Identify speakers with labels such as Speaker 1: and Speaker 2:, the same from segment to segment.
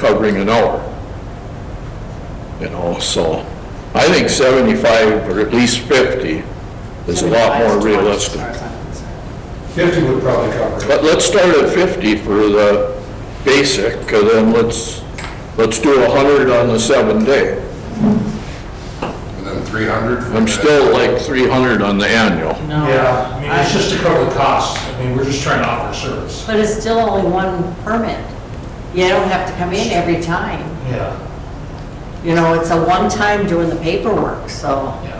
Speaker 1: covering an hour. You know, so I think 75 or at least 50 is a lot more realistic.
Speaker 2: 50 would probably cover it.
Speaker 1: But let's start at 50 for the basic, and then let's, let's do 100 on the seven day.
Speaker 3: And then 300? for
Speaker 1: I'm
Speaker 3: the-
Speaker 1: still like 300 on the annual.
Speaker 4: No.
Speaker 2: Yeah, I mean, it's
Speaker 4: I-
Speaker 2: just to cover the cost. I mean, we're just trying to offer service.
Speaker 4: But it's still only one permit. You don't have to come in every time.
Speaker 2: Yeah,
Speaker 4: You know, it's a one-time doing the paperwork, so.
Speaker 2: yeah.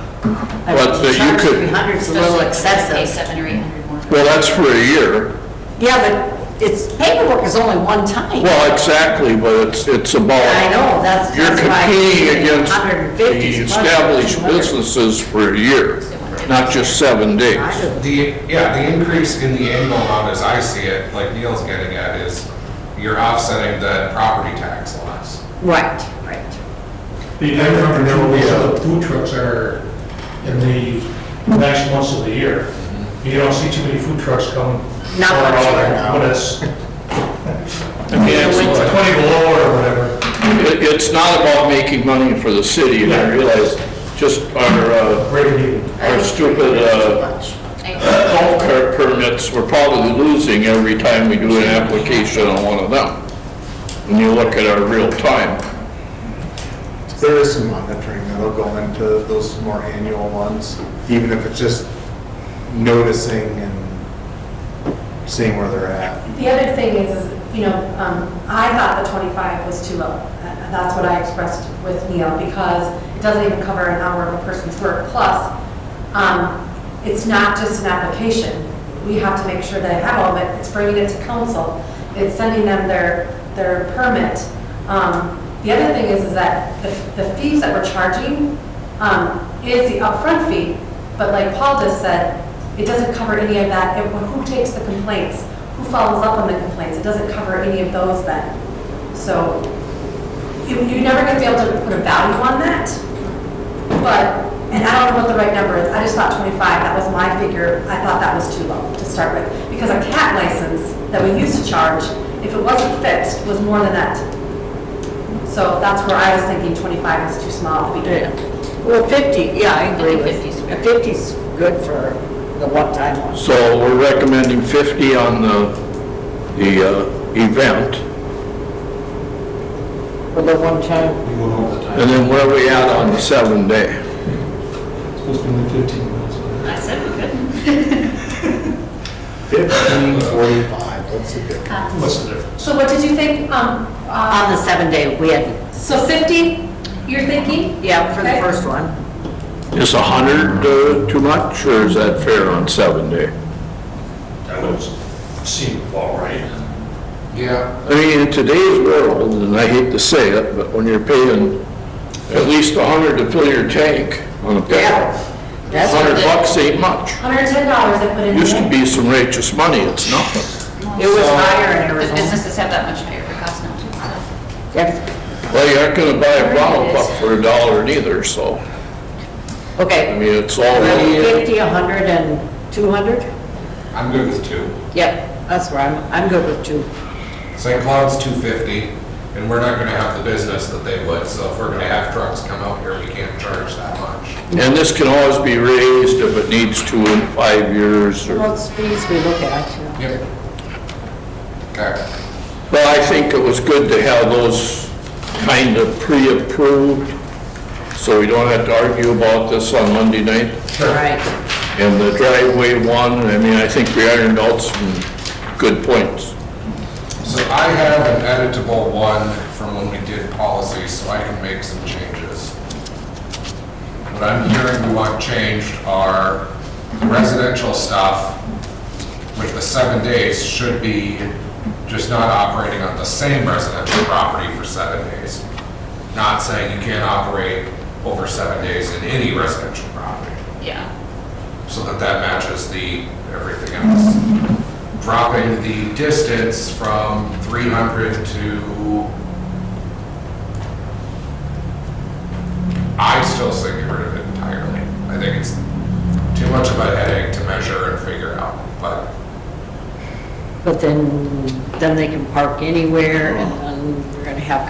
Speaker 4: I
Speaker 1: But
Speaker 4: mean,
Speaker 1: that you
Speaker 4: charge
Speaker 1: could-
Speaker 4: 300 is a little
Speaker 5: Pay
Speaker 4: excessive.
Speaker 5: seven or eight hundred more.
Speaker 1: Well, that's for a year.
Speaker 4: Yeah, but it's, paperwork is only one time.
Speaker 1: Well, exactly, but it's, it's about.
Speaker 4: I know, that's-
Speaker 1: You're
Speaker 4: that's why I'm
Speaker 1: competing
Speaker 4: saying
Speaker 1: against
Speaker 4: 150
Speaker 1: the
Speaker 4: is
Speaker 1: established
Speaker 4: much, it's
Speaker 1: businesses for a year, not just seven days.
Speaker 4: I don't-
Speaker 3: The, yeah, the increase in the annual amount as I see it, like Neil's getting at, is you're offsetting the property tax loss.
Speaker 4: Right, right.
Speaker 2: The income from uh, the food trucks are in the last months of the year. You don't see too many food trucks come.
Speaker 4: Not
Speaker 2: for
Speaker 4: much
Speaker 2: all
Speaker 4: either.
Speaker 2: that, But it's, I mean, it's
Speaker 4: In the winter.
Speaker 2: 20 below or whatever.
Speaker 1: It, it's not about making money for the city, and I realize just our, uh,
Speaker 2: Break even.
Speaker 1: our stupid, uh,
Speaker 5: I-
Speaker 1: golf cart permits, we're probably losing every time we do an application on one of them. When you look at our real time.
Speaker 6: There is some monitoring that'll go into those more annual ones, even if it's just noticing and seeing where they're at.
Speaker 7: The other thing is, is, you know, um, I thought the 25 was too low. Uh, That's what I expressed with Neil, because it doesn't even cover an hour of a person's work. Plus, um, it's not just an application. We have to make sure they have all of it. It's bringing it to council. It's sending them their, their permit. Um, The other thing is, is that the the fees that we're charging um, is the upfront fee, but like Paul just said, it doesn't cover any of that. It- Who takes the complaints? Who follows up on the complaints? It doesn't cover any of those then. So you- you're never going to be able to put a value on that, but, and I don't know what the right number is. I just thought 25, that was my figure. I thought that was too low to start with. Because a cat license that we used to charge, if it wasn't fixed, was more than that. So that's where I was thinking 25 was too small at the beginning.
Speaker 4: Yeah. Well, 50, yeah, I agree with,
Speaker 5: 50 is fair.
Speaker 4: 50's good for the one-time one.
Speaker 1: So we're recommending 50 on the, the uh, event,
Speaker 4: For the one-time.
Speaker 2: You went over the
Speaker 1: and then where we at on the seven day?
Speaker 2: It's supposed to be only 15 minutes.
Speaker 5: I said we couldn't.
Speaker 6: Fifteen forty-five, what's the difference?
Speaker 2: What's the difference?
Speaker 7: So what did you think? Um,
Speaker 4: On
Speaker 7: uh,
Speaker 4: the seven day, we had,
Speaker 7: So 50, you're thinking?
Speaker 4: yeah, for the
Speaker 7: Okay.
Speaker 4: first one.
Speaker 1: Is 100 uh, too much, or is that fair on seven day?
Speaker 2: That would seem all right.
Speaker 3: Yeah.
Speaker 1: I mean, in today's world, and I hate to say it, but when you're paying at least 100 to fill your tank on a
Speaker 4: Yeah.
Speaker 1: petrol, 100
Speaker 4: That's what it- Mm-hmm.
Speaker 1: bucks ain't much.
Speaker 7: $110 I put in.
Speaker 1: Used to be some righteous money, it's nothing.
Speaker 4: It was higher in
Speaker 5: Because
Speaker 4: Arizona.
Speaker 5: businesses have that much higher of a cost now too, so.
Speaker 4: Yeah.
Speaker 1: Well, you aren't gonna buy a bottle pop for a dollar neither, so, I
Speaker 4: Okay.
Speaker 1: mean, it's all,
Speaker 4: 50, 100, and 200?
Speaker 3: I'm good with two.
Speaker 4: Yep, that's where I'm, I'm good with two.
Speaker 3: St. Cloud's 250, and we're not gonna have the business that they would, so if we're gonna have trucks come out here, we can't charge that much.
Speaker 1: and this can always be raised if it needs to in five years, or,
Speaker 4: Most fees we look at, you know.
Speaker 3: Yep. Okay.
Speaker 1: but I think it was good to have those kind of pre-approved, so we don't have to argue about this on Monday night.
Speaker 4: All right.
Speaker 1: And the driveway one, I mean, I think we ironed out some good points.
Speaker 3: So I have an editable one from when we did policy, so I can make some changes. What I'm hearing we want changed are residential stuff, which the seven days should be just not operating on the same residential property for seven days. Not saying you can't operate over seven days in any residential property
Speaker 5: Yeah.
Speaker 3: so that that matches the everything else. Dropping the distance from 300 to, I still say get rid of it entirely. I think it's too much of a headache to measure and figure out, but
Speaker 4: But then, then they can park anywhere and then